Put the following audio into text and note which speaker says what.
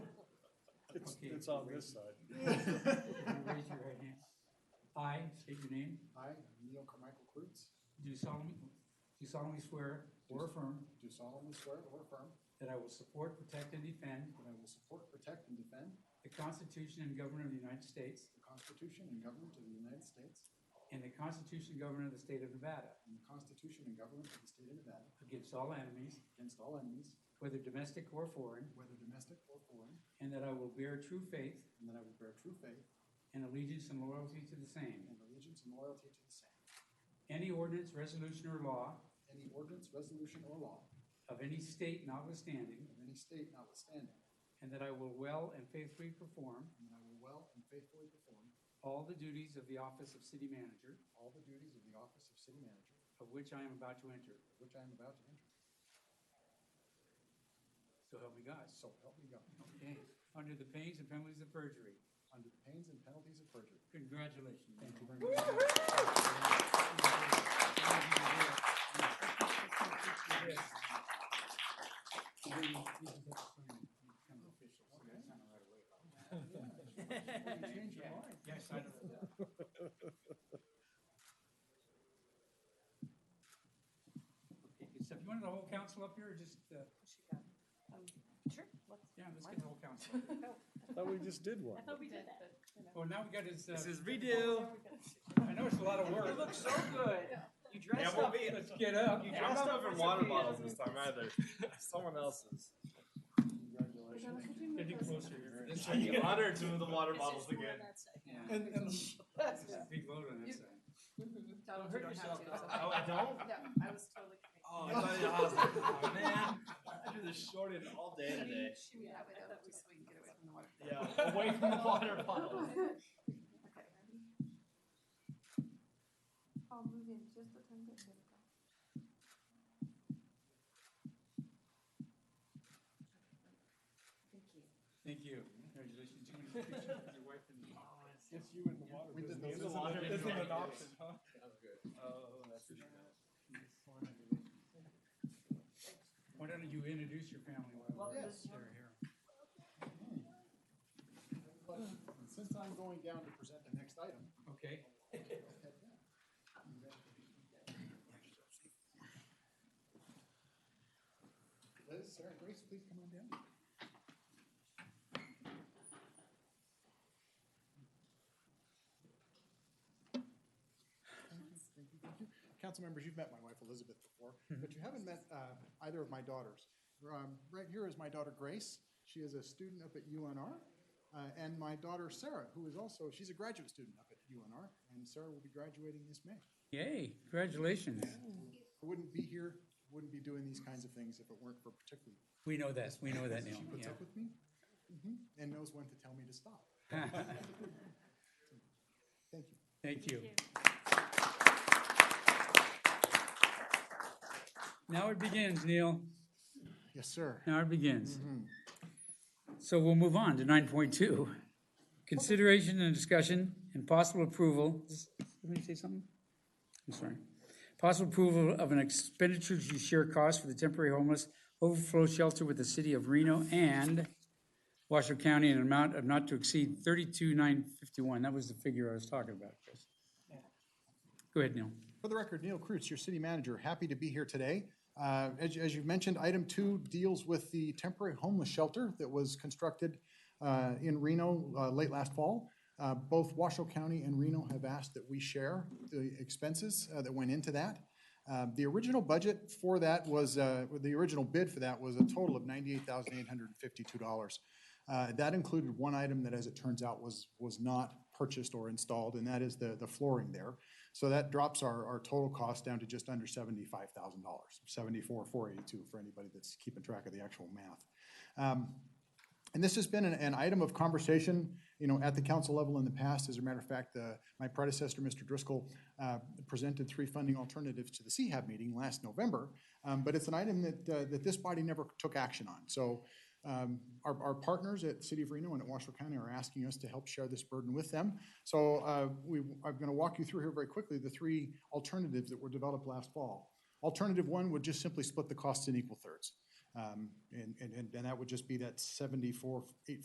Speaker 1: It's,
Speaker 2: Okay,
Speaker 1: it's on
Speaker 2: great.
Speaker 1: this side.
Speaker 2: Everybody Raise your right hand. I state your name.
Speaker 3: I, Neil Carmichael Kreutz,
Speaker 2: Do solemnly, do solemnly swear or affirm
Speaker 3: do solemnly swear or affirm
Speaker 2: that I will support, protect, and defend
Speaker 3: that I will support, protect, and defend
Speaker 2: the Constitution and government of the United States
Speaker 3: the Constitution and government of the United States
Speaker 2: and the Constitution and government of the state of Nevada
Speaker 3: and the Constitution and government of the state of Nevada
Speaker 2: against all enemies,
Speaker 3: against all enemies,
Speaker 2: whether domestic or foreign,
Speaker 3: whether domestic or foreign,
Speaker 2: and that I will bear true faith
Speaker 3: and that I will bear true faith
Speaker 2: and allegiance and loyalty to the same.
Speaker 3: and allegiance and loyalty to the same,
Speaker 2: Any ordinance, resolution, or law
Speaker 3: any ordinance, resolution, or law
Speaker 2: of any state notwithstanding,
Speaker 3: of any state notwithstanding,
Speaker 2: and that I will well and faithfully perform
Speaker 3: and that I will well and faithfully perform
Speaker 2: all the duties of the office of city manager,
Speaker 3: all the duties of the office of city manager,
Speaker 2: of which I am about to enter.
Speaker 3: which I am about to enter.
Speaker 2: So help me God.
Speaker 3: So help me God,
Speaker 2: Okay, under the pains and penalties of perjury.
Speaker 3: under the pains and penalties of perjury.
Speaker 2: Congratulations. Thank you very much. Yes, I know. Okay, good stuff. You wanted the whole council up here or just, uh,
Speaker 4: She got, um, sure, let's.
Speaker 2: yeah, let's get the whole council. up here.
Speaker 1: I thought we just did one.
Speaker 4: I thought we did that. you know.
Speaker 2: Oh, now we got his, uh,
Speaker 5: This is
Speaker 4: There
Speaker 5: redo.
Speaker 4: we go.
Speaker 2: I know it's a lot of work.
Speaker 5: You look so good. You dressed
Speaker 2: Well,
Speaker 5: up. You
Speaker 2: Let's get up.
Speaker 5: dressed
Speaker 4: I'm not
Speaker 5: up in
Speaker 4: supposed
Speaker 5: water
Speaker 4: to be.
Speaker 5: bottles this time either. Someone else's.
Speaker 3: Congratulations.
Speaker 2: Get you closer here. This
Speaker 5: I'd be
Speaker 2: way.
Speaker 5: honored to move the water
Speaker 4: It's
Speaker 5: bottles
Speaker 4: just more
Speaker 5: again.
Speaker 4: on that side.
Speaker 2: Yeah.
Speaker 3: And, and
Speaker 2: It's a Big load on that side.
Speaker 4: Donald, you
Speaker 5: hurt
Speaker 4: don't have
Speaker 5: yourself,
Speaker 4: to,
Speaker 5: though.
Speaker 4: it's okay.
Speaker 5: Oh, I don't?
Speaker 4: No, I was totally kidding.
Speaker 5: Oh, I thought I was like, oh, man. I do this short end all day today.
Speaker 4: She would have it up just so we can get away from the water.
Speaker 5: Yeah, away from the water
Speaker 4: Oh,
Speaker 5: bottles.
Speaker 4: Okay.
Speaker 6: I'll move in just a tiny bit. There we go.
Speaker 4: Thank you.
Speaker 2: Thank you. Congratulations. You and your your wife and.
Speaker 5: Oh,
Speaker 1: It's you and the water
Speaker 3: We did
Speaker 1: business.
Speaker 3: those.
Speaker 1: It's an-
Speaker 5: Water
Speaker 1: It's an
Speaker 5: business.
Speaker 1: adoption, huh?
Speaker 5: Oh, that's what you
Speaker 2: Why don't you introduce your family while we're
Speaker 3: Yes.
Speaker 2: they're here?
Speaker 3: Hmm. But Since I'm going down to present the next item.
Speaker 2: Okay.
Speaker 3: Liz, Sarah, Grace, please come on down. Thank you, thank you, thank you. Council members, you've met my wife Elizabeth before, but you haven't met uh, either of my daughters. Um, Right here is my daughter Grace. She is a student up at UNR. uh, And my daughter Sarah, who is also, she's a graduate student up at UNR, and Sarah will be graduating this May.
Speaker 2: Yay, congratulations.
Speaker 3: I wouldn't be here, wouldn't be doing these kinds of things if it weren't for particularly
Speaker 2: We know this. We know that now.
Speaker 3: she puts
Speaker 2: Yeah.
Speaker 3: up with me mhm, and knows when to tell me to stop. Thank you.
Speaker 2: Thank you. Now it begins, Neil.
Speaker 3: Yes, sir.
Speaker 2: Now it begins. So we'll move on to nine point two. Consideration and discussion and possible approval, let me say something? I'm sorry. Possible approval of an expenditure to share costs for the temporary homeless overflow shelter with the city of Reno and Washoe County in an amount of not to exceed thirty-two nine fifty-one. That was the figure I was talking about, Chris. Go ahead, Neil.
Speaker 3: For the record, Neil Kreutz, your city manager, happy to be here today. Uh, As as you've mentioned, item two deals with the temporary homeless shelter that was constructed uh, in Reno uh, late last fall. Uh, Both Washoe County and Reno have asked that we share the expenses uh, that went into that. Uh, The original budget for that was, uh, the original bid for that was a total of $98,852. Uh, That included one item that, as it turns out, was, was not purchased or installed, and that is the, the flooring there. So that drops our, our total cost down to just under seventy-five thousand dollars, seventy-four, four eighty-two, for anybody that's keeping track of the actual math. And this has been an, an item of conversation, you know, at the council level in the past. As a matter of fact, uh, my predecessor, Mr. Driscoll, uh, presented three funding alternatives to the CHAB meeting last November. Um, But it's an item that, uh, that this body never took action on. So um, our, our partners at City of Reno and at Washoe County are asking us to help share this burden with them. So uh, we, I'm going to walk you through here very quickly the three alternatives that were developed last fall. Alternative one would just simply split the costs in equal thirds. Um, And, and, and and that would just be that seventy-four, eight